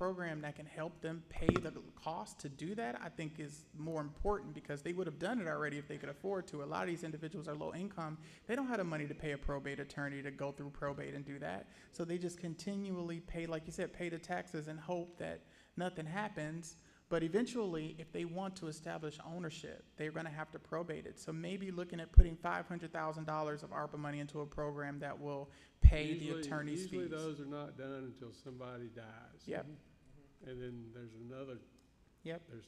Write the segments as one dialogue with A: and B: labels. A: program that can help them pay the cost to do that, I think is more important because they would have done it already if they could afford to. A lot of these individuals are low income. They don't have the money to pay a probate attorney to go through probate and do that. So they just continually pay, like you said, pay the taxes and hope that nothing happens. But eventually, if they want to establish ownership, they're gonna have to probate it. So maybe looking at putting five hundred thousand dollars of ARPA money into a program that will pay the
B: Usually-
A: attorney's fees.
B: Usually those are not done until somebody dies.
A: Yep.
B: And then there's another.
A: Yep.
B: There's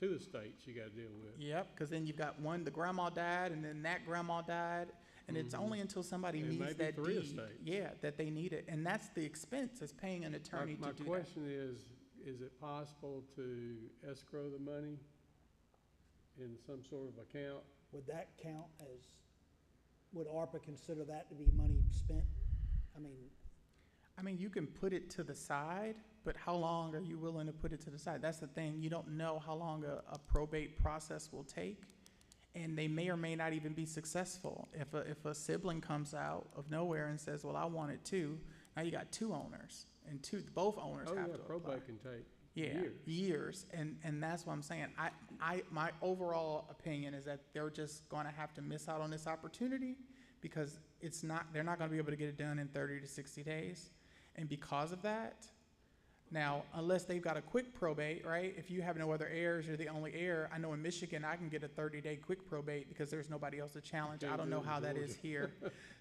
B: two estates you gotta deal with.
A: Yep, because then you've got one, the grandma died, and then that grandma died, and it's
B: Mhm.
A: only until somebody
B: And
A: needs
B: maybe
A: that
B: three
A: deed,
B: estates.
A: yeah, that they need it, and that's the expense, is paying an
B: My-
A: attorney to do
B: My
A: that.
B: question is, is it possible to escrow the money in some sort of account?
C: Would that count as, would ARPA consider that to be money spent? I mean,
A: I mean, you can put it to the side, but how long are you willing to put it to the side? That's the thing, you don't know how long a, a probate process will take, and they may or may not even be successful. If a, if a sibling comes out of nowhere and says, well, I want it too, now you got two owners, and two, both owners
B: Oh,
A: have
B: yeah,
A: to apply.
B: probate can take
A: Yeah,
B: years.
A: years, and, and that's what I'm saying. I, I, my overall opinion is that they're just gonna have to miss out on this opportunity because it's not, they're not gonna be able to get it done in thirty to sixty days. And because of that, now, unless they've got a quick probate, right? If you have no other heirs, you're the only heir. I know in Michigan, I can get a thirty-day quick probate because there's nobody else to challenge. I
B: Can't
A: don't
B: do
A: know
B: it in
A: how that is
B: Georgia.
A: here.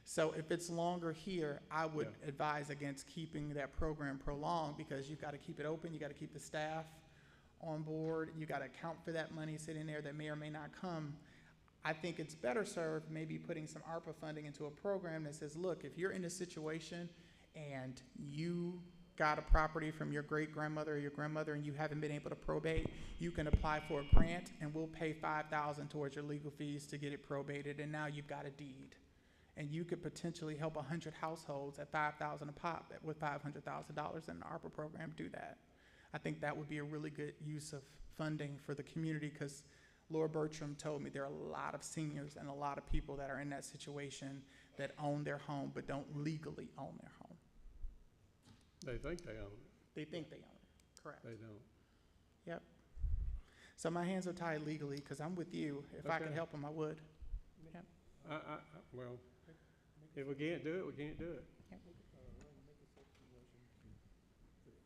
A: So if it's longer here, I would
B: Yeah.
A: advise against keeping that program prolonged because you've got to keep it open, you got to keep the staff on board, you got to account for that money sitting there that may or may not come. I think it's better served maybe putting some ARPA funding into a program that says, look, if you're in a situation and you got a property from your great grandmother or your grandmother and you haven't been able to probate, you can apply for a grant and we'll pay five thousand towards your legal fees to get it probated and now you've got a deed. And you could potentially help hundred households at five thousand a pop that- with five hundred thousand dollars in the ARPA program do that. I think that would be a really good use of funding for the community because Laura Bertram told me there are a lot of seniors and a lot of people that are in that situation that own their home but don't legally own their home.
B: They think they own it,
A: They think they own it, correct.
B: they don't.
A: So my hands are tied legally because I'm with you. If I could
B: Okay.
A: help them, I would.
B: I, I, I- well, if we can't do it, we can't do it.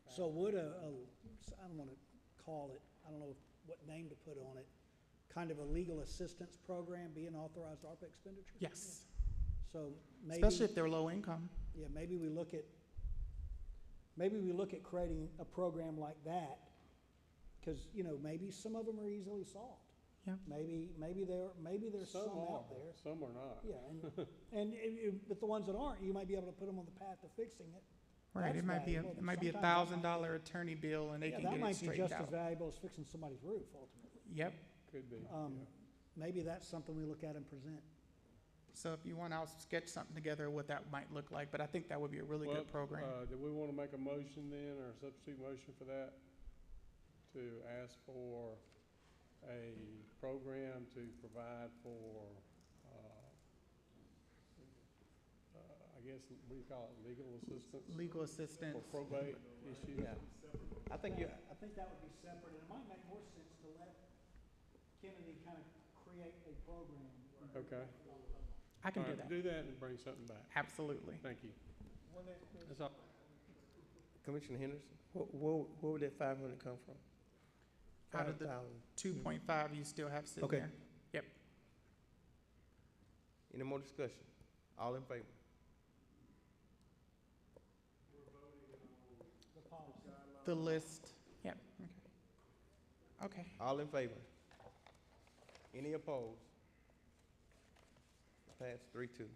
C: so would a, a, s- I don't wanna call it, I don't know what name to put on it, kind of a legal assistance program be an authorized ARPA expenditure?
A: Yes,
C: So maybe,
A: especially if they're low income.
C: yeah, maybe we look at, maybe we look at creating a program like that, cause, you know, maybe some of them are easily solved.
A: Yeah.
C: Maybe, maybe there, maybe there's some
B: are,
C: out there.
B: Some are not.
C: Yeah, and, and, it- it- but the ones that aren't, you might be able to put them on the path to fixing it.
A: Right, it
C: That's
A: might be, a
C: valuable,
A: it
C: but
A: might be a
C: sometimes that
A: thousand
C: might-
A: dollar attorney bill and they
C: Yeah,
A: can get it
C: That might
A: straightened
C: be just as
A: out.
C: valuable as fixing somebody's roof ultimately.
A: Yep,
B: Could be,
C: Um,
B: yeah.
C: Maybe that's something we look at and present.
A: so if you want, I'll sketch something together of what that might look like, but I think that would be a really
B: Well,
A: good program.
B: Uh, do we wanna make a motion then, or a substitute motion for that? To ask for a program to provide for, uh, uh, I guess, what do you call it, legal assistance?
A: Legal
B: For
A: assistance,
B: probate issues?
D: Yeah. I think you,
C: I think that would be separate, and it might make more sense to let Kennedy kind of create a program.
B: Okay.
A: I can
B: All
A: do
B: right,
A: that,
B: Do that and bring something back.
A: absolutely.
B: Thank you. That's all.
D: Commissioner Henderson, where, where, where would that five hundred come from?
A: Out of the-
D: Five thousand.
A: Two point five, you still have sitting
D: Okay.
A: there.
D: Any more discussion? All in favor?
A: The list, yep, okay. Okay.
D: All in favor? Any opposed? Pass three two.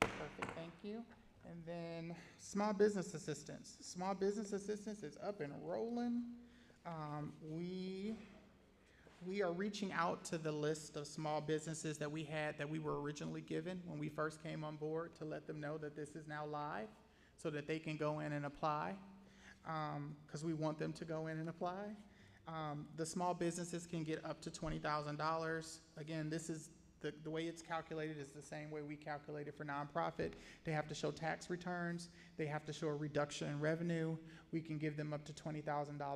A: Perfect, thank you. And then, small business assistance. Small business assistance is up and rolling. Um, we, we are reaching out to the list of small businesses that we had, that we were originally given when we first came on board, to let them know that this is now live, so that they can go in and apply, um, because we want them to go in and apply. Um, the small businesses can get up to twenty thousand dollars. Again, this is the, the way it's calculated is the same way we calculate it for nonprofit. They have to show tax returns, they have to show a reduction in revenue. We can give them up to twenty thousand dollars